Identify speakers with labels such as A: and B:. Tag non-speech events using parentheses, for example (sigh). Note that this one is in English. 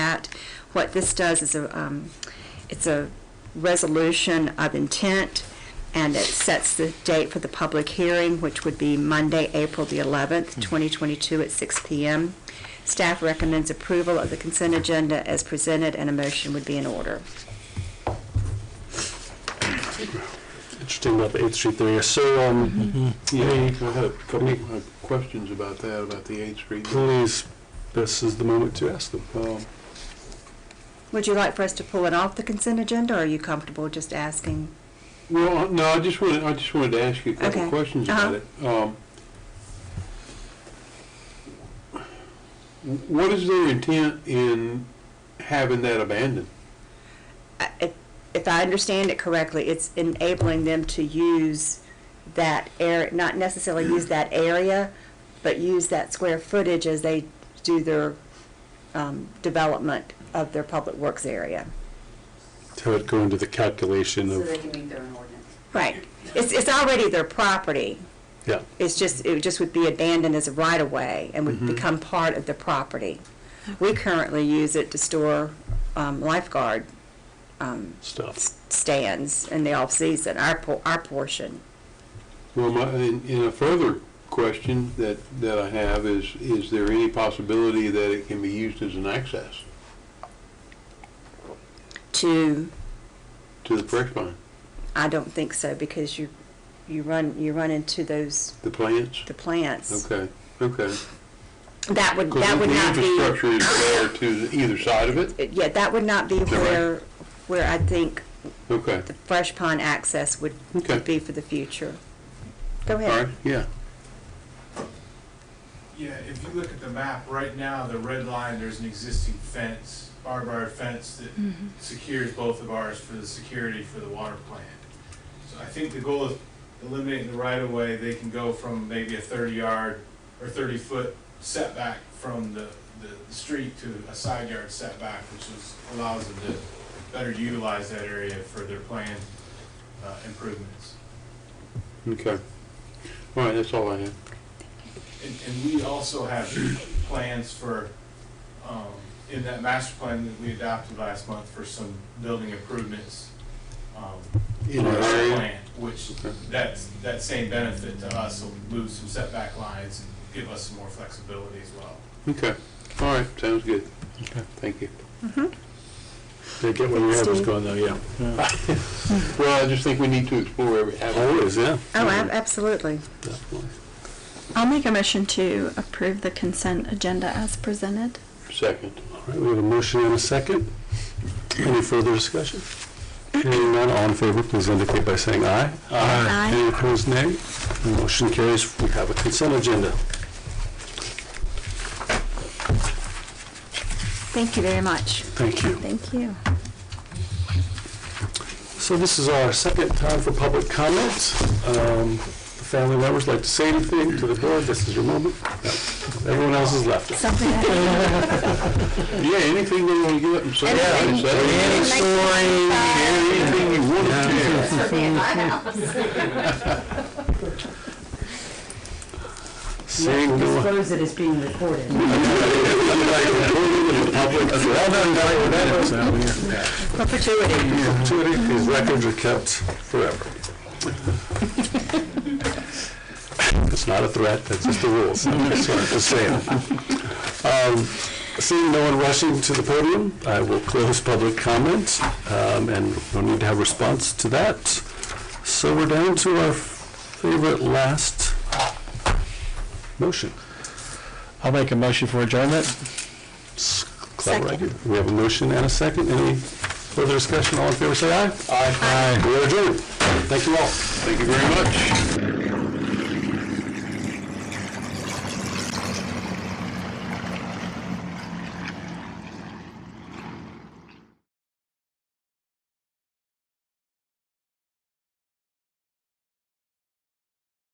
A: What this does is a, um, it's a resolution of intent, and it sets the date for the public hearing, which would be Monday, April the 11th, 2022, at 6 p.m. Staff recommends approval of the consent agenda as presented, and a motion would be in order.
B: Interesting about the 8th Street there. So, um, yeah,
C: I had a couple of questions about that, about the Eighth Street.
B: please, this is the moment to ask them.
C: Um,
A: Would you like for us to pull it off the consent agenda, or are you comfortable just asking?
C: Well, no, I just wanted, I just wanted to ask you a couple
A: Okay. Uh-huh.
C: of questions about it. Um, What is their intent in having that abandoned?
A: I- if- if I understand it correctly, it's enabling them to use that air, not necessarily use that area, but use that square footage as they do their um, development of their public works area.
B: To it go into the calculation
D: So they
B: of,
D: can meet their own ordinance.
A: Right. It's, it's already their property.
B: yeah.
A: It's just, it just would be abandoned as a right-of-way and would
C: Mhm.
A: become part of the property. We currently use it to store um, lifeguard um,
B: stuff.
A: s- stands in the off-season, our, por- our portion.
C: Well, my, and and a further question that, that I have is, is there any possibility that it can be used as an access
A: to,
C: to the fresh pond,
A: I don't think so, because you, you run, you run into those,
C: the plants?
A: the plants.
C: Okay, okay.
A: That would,
C: Because
A: that would not
C: The
A: be,
C: infrastructure is there to either side of it?
A: yeah, that would not be
C: that right?
A: where, where I think
C: Okay,
A: the fresh pond access would
C: Okay.
A: would be for the future. Go
C: all right,
A: ahead.
C: yeah.
E: Yeah, if you look at the map, right now, the red line, there's an existing fence, barbed wire fence that secures both of ours for the security for the water plant. So I think the goal is eliminating the right of way, they can go from maybe a thirty yard or thirty foot setback from the, the, the street to a side yard setback, which is, allows them to better utilize that area for their planned, uh, improvements.
C: Okay. All right, that's all I have.
E: And, and we also have plans for, um, in that master plan that we adopted last month for some building improvements. um,
C: In
E: on
C: our
E: that
C: area?
E: plan, Which,
C: Okay.
E: that's, that same benefit to us will move some setback lines and give us some more flexibility as well.
C: Okay, all right, sounds good.
B: Okay.
C: Thank you.
B: They get where your head was
A: Steve?
B: going though, yeah.
C: Well, I just think we need to explore every avenue.
B: Always, yeah.
A: Oh, ab- absolutely.
C: Definitely.
F: I'll make a motion to approve the consent agenda as presented.
C: Second.
B: All right, we have a motion and a second. Any further discussion? Hearing none, all in favor, please indicate by saying aye.
F: Aye.
B: Any opposed, nay? Motion carries. We have a consent agenda.
F: Thank you very much.
B: Thank you.
F: Thank you.
B: So this is our second time for public comments. Um, the Family members like to say anything to the board, this is your moment. No, Everyone else has left.
F: Something that
C: Yeah, anything they want to get up and say.
A: Anything.
C: say it.
A: Any story.
C: Share Anything you want to share.
A: (laughs)
D: Certainly at my house.
B: Seeing no one. (laughs)
D: Disclose it as being recorded.
A: Perpetuity.
B: Perpetuity, because records are kept forever. It's not a threat, that's just
G: (laughs)
B: the rules. That's what I'm just saying. Um, Seeing no one rushing to the podium, I will close public comment, um, and no need to have response to that. So we're down to our favorite last motion.
G: I'll make a motion for adjournment.
B: It's clever idea. We have a motion and a second. Any further discussion? All in favor, say aye. Aye. We are adjourned. Thank you all. Thank you very much.